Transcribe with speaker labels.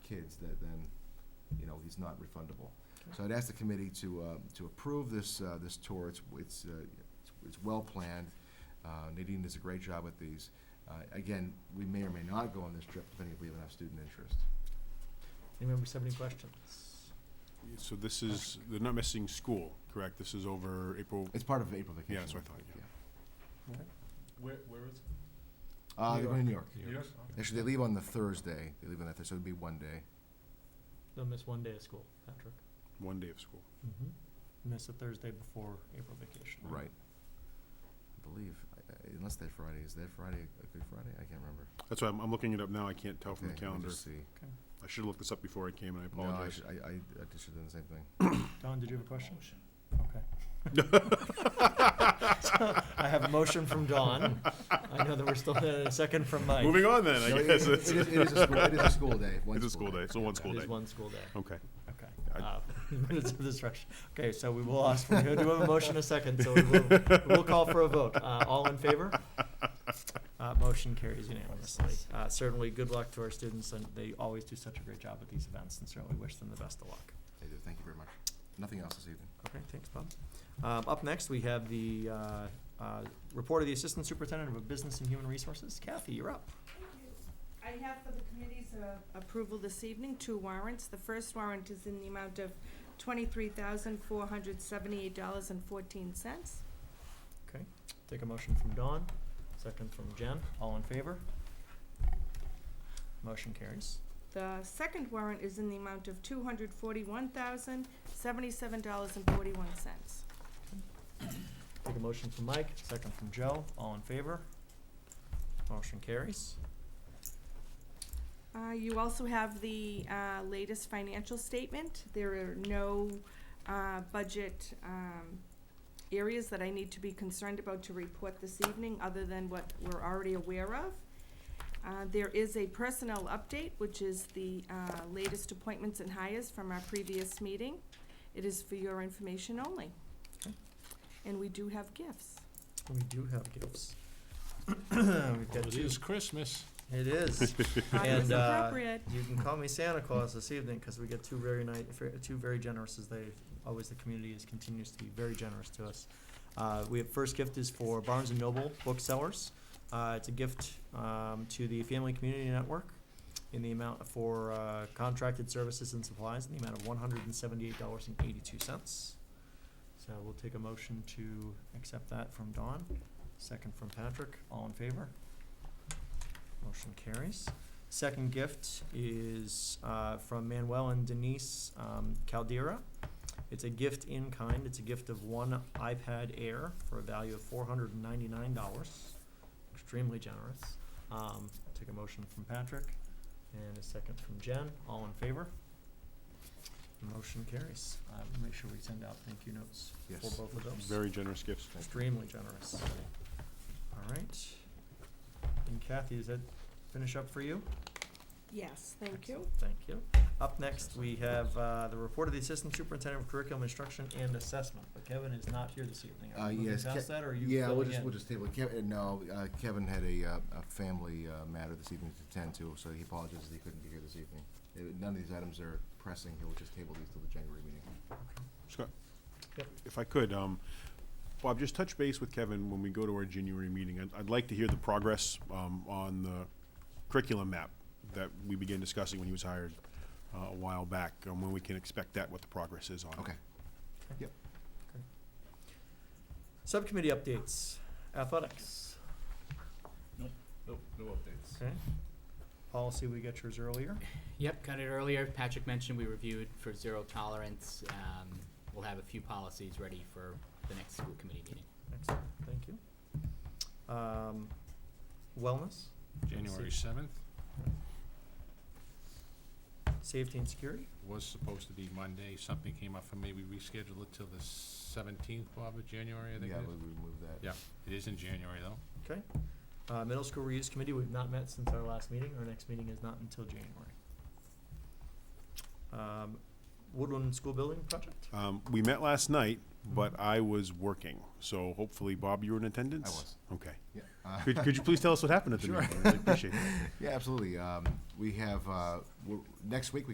Speaker 1: kids, that then, you know, he's not refundable. So I'd ask the committee to, uh, to approve this, uh, this tour. It's, it's, uh, it's- it's well-planned. Uh, Nadine does a great job with these. Uh, again, we may or may not go on this trip depending if we have enough student interest.
Speaker 2: Any members have any questions?
Speaker 3: So this is, they're not missing school, correct? This is over April,
Speaker 1: It's part of April vacation.
Speaker 3: Yeah, that's what I thought, yeah.
Speaker 4: Where, where is
Speaker 1: Uh, they're going to New York.
Speaker 4: it?
Speaker 3: New York.
Speaker 1: Actually, they leave on the Thursday. They leave on that Thursday, so it'd be one day.
Speaker 2: They'll miss one day of school, Patrick.
Speaker 3: one day of school.
Speaker 2: Mm-hmm. Miss a Thursday before April vacation.
Speaker 3: Mm-hmm.
Speaker 1: Right. I believe, I- I- unless that Friday, is that Friday a good Friday? I can't remember.
Speaker 3: That's why I'm, I'm looking it up now. I can't tell Oh, from the
Speaker 1: Okay, let me
Speaker 3: calendar.
Speaker 1: just see.
Speaker 3: I should have looked this up before I came and I
Speaker 1: No, I
Speaker 3: apologize.
Speaker 1: should, I, I I just should have done the same thing.
Speaker 2: Don, did you have a question? Okay. So, I have a motion from Don. I know that we're still, uh, a second from Mike.
Speaker 3: Moving on then,
Speaker 1: No,
Speaker 3: I
Speaker 1: it-
Speaker 3: guess.
Speaker 1: It it is, it is a school, it is a school day, one
Speaker 3: It's a school day, so one school
Speaker 2: It
Speaker 3: day.
Speaker 2: is one school day.
Speaker 3: Okay.
Speaker 2: Okay.
Speaker 3: I-
Speaker 2: Uh, Minutes of this rush. Okay, so we will ask, we do have a motion in a second, so we will, we will call for a vote. Uh, all in favor? Uh, motion carries unanimously. Uh, certainly, good luck to our students, and they always do such a great job at these events, and certainly wish them the best of luck.
Speaker 1: They do, thank you very much. Nothing else this evening.
Speaker 2: Okay, thanks, Bob. Um, up next, we have the, uh, uh, report of the Assistant Superintendent of Business and Human Resources. Kathy, you're up.
Speaker 5: I have for the committee's uh, approval this evening, two warrants. The first warrant is in the amount of twenty-three thousand, four hundred seventy-eight dollars and fourteen cents.
Speaker 2: Okay, take a motion from Dawn, second from Jen. All in favor? Motion carries.
Speaker 5: The second warrant is in the amount of two hundred forty-one thousand, seventy-seven dollars and forty-one cents.
Speaker 2: Take a motion from Mike, second from Joe, all in favor? Motion carries.
Speaker 5: Uh, you also have the, uh, latest financial statement. There are no, uh, budget, um, areas that I need to be concerned about to report this evening, other than what we're already aware of. Uh, there is a personnel update, which is the, uh, latest appointments and hires from our previous meeting. It is for your information only.
Speaker 2: Okay.
Speaker 5: And we do have gifts.
Speaker 2: We do have gifts. We've got
Speaker 4: Oh, It
Speaker 2: two.
Speaker 4: is Christmas.
Speaker 2: It is.
Speaker 5: Uh, it's
Speaker 2: And, uh,
Speaker 5: appropriate.
Speaker 2: You can call me Santa Claus this evening, cause we get two very nice, two very generous, as they, always the community is, continues to be very generous to us. Uh, we have, first gift is for Barnes and Noble Booksellers. Uh, it's a gift, um, to the Family Community Network in the amount for, uh, contracted services and supplies in the amount of one hundred and seventy-eight dollars and eighty-two cents. So we'll take a motion to accept that from Dawn, second from Patrick, all in favor? Motion carries. Second gift is uh, from Manuel and Denise um, Caldera. It's a gift in kind. It's a gift of one iPad Air for a value of four hundred and ninety-nine dollars. Extremely generous. Um, take a motion from Patrick and a second from Jen. All in favor? Motion carries. Uh, we'll make sure we send out thank you notes for
Speaker 1: Yes.
Speaker 2: both of those.
Speaker 3: Very generous gifts.
Speaker 2: Extremely generous. All right. And Kathy, does that finish up for you?
Speaker 5: Yes, thank you.
Speaker 2: Excellent, Thank you. Up next, we have uh, the report of the Assistant Superintendent of Curriculum Instruction and Assessment. But Kevin is not here this evening. Are
Speaker 1: Uh,
Speaker 2: we moving
Speaker 1: yes,
Speaker 2: past
Speaker 1: Ke-
Speaker 2: that, or are you
Speaker 1: Yeah, we'll
Speaker 2: filling
Speaker 1: just,
Speaker 2: in?
Speaker 1: we'll just table it. Kevin, no, uh, Kevin had a, uh, a family, uh, matter this evening to attend to, so he apologizes that he couldn't be here this evening. Uh, None of these items are pressing. He'll just table these till the January meeting.
Speaker 3: Scott,
Speaker 2: Yep.
Speaker 3: if I could, um, Bob, just touch base with Kevin when we go to our January meeting. I'd, I'd like to hear the progress, um, on the curriculum map that we began discussing when he was hired, uh, a while back, and when we can expect that, what the progress is on. it.
Speaker 1: Okay.
Speaker 2: Subcommittee updates, athletics.
Speaker 4: No, no updates.
Speaker 2: Okay. Policy, we got yours earlier.
Speaker 6: Yep, got it earlier. Patrick mentioned we reviewed for zero tolerance. Um, we'll have a few policies ready for the next school committee meeting.
Speaker 2: Excellent, thank you. Um, Wellness,
Speaker 4: January seventh
Speaker 2: safety and security.
Speaker 4: was supposed to be Monday. Something came up for me. We rescheduled it till the seventeenth, Bob, of January, I think
Speaker 1: Yeah,
Speaker 4: it
Speaker 1: we we remove that.
Speaker 4: Yeah. is. It is in January, though.
Speaker 2: Uh, Middle School Reuse Committee, we've not met since our last meeting. Our next meeting is not until January. Um, Woodland School Building project?
Speaker 3: Um, we met last night, but I was working, so hopefully, Bob, you were in attendance?
Speaker 1: I was.
Speaker 3: Okay.
Speaker 1: Yeah, uh,
Speaker 3: Could, could you please tell us what happened at the
Speaker 1: Sure.
Speaker 3: meeting? I really appreciate that.
Speaker 1: yeah, absolutely. Um, we have, uh, we're- next week, we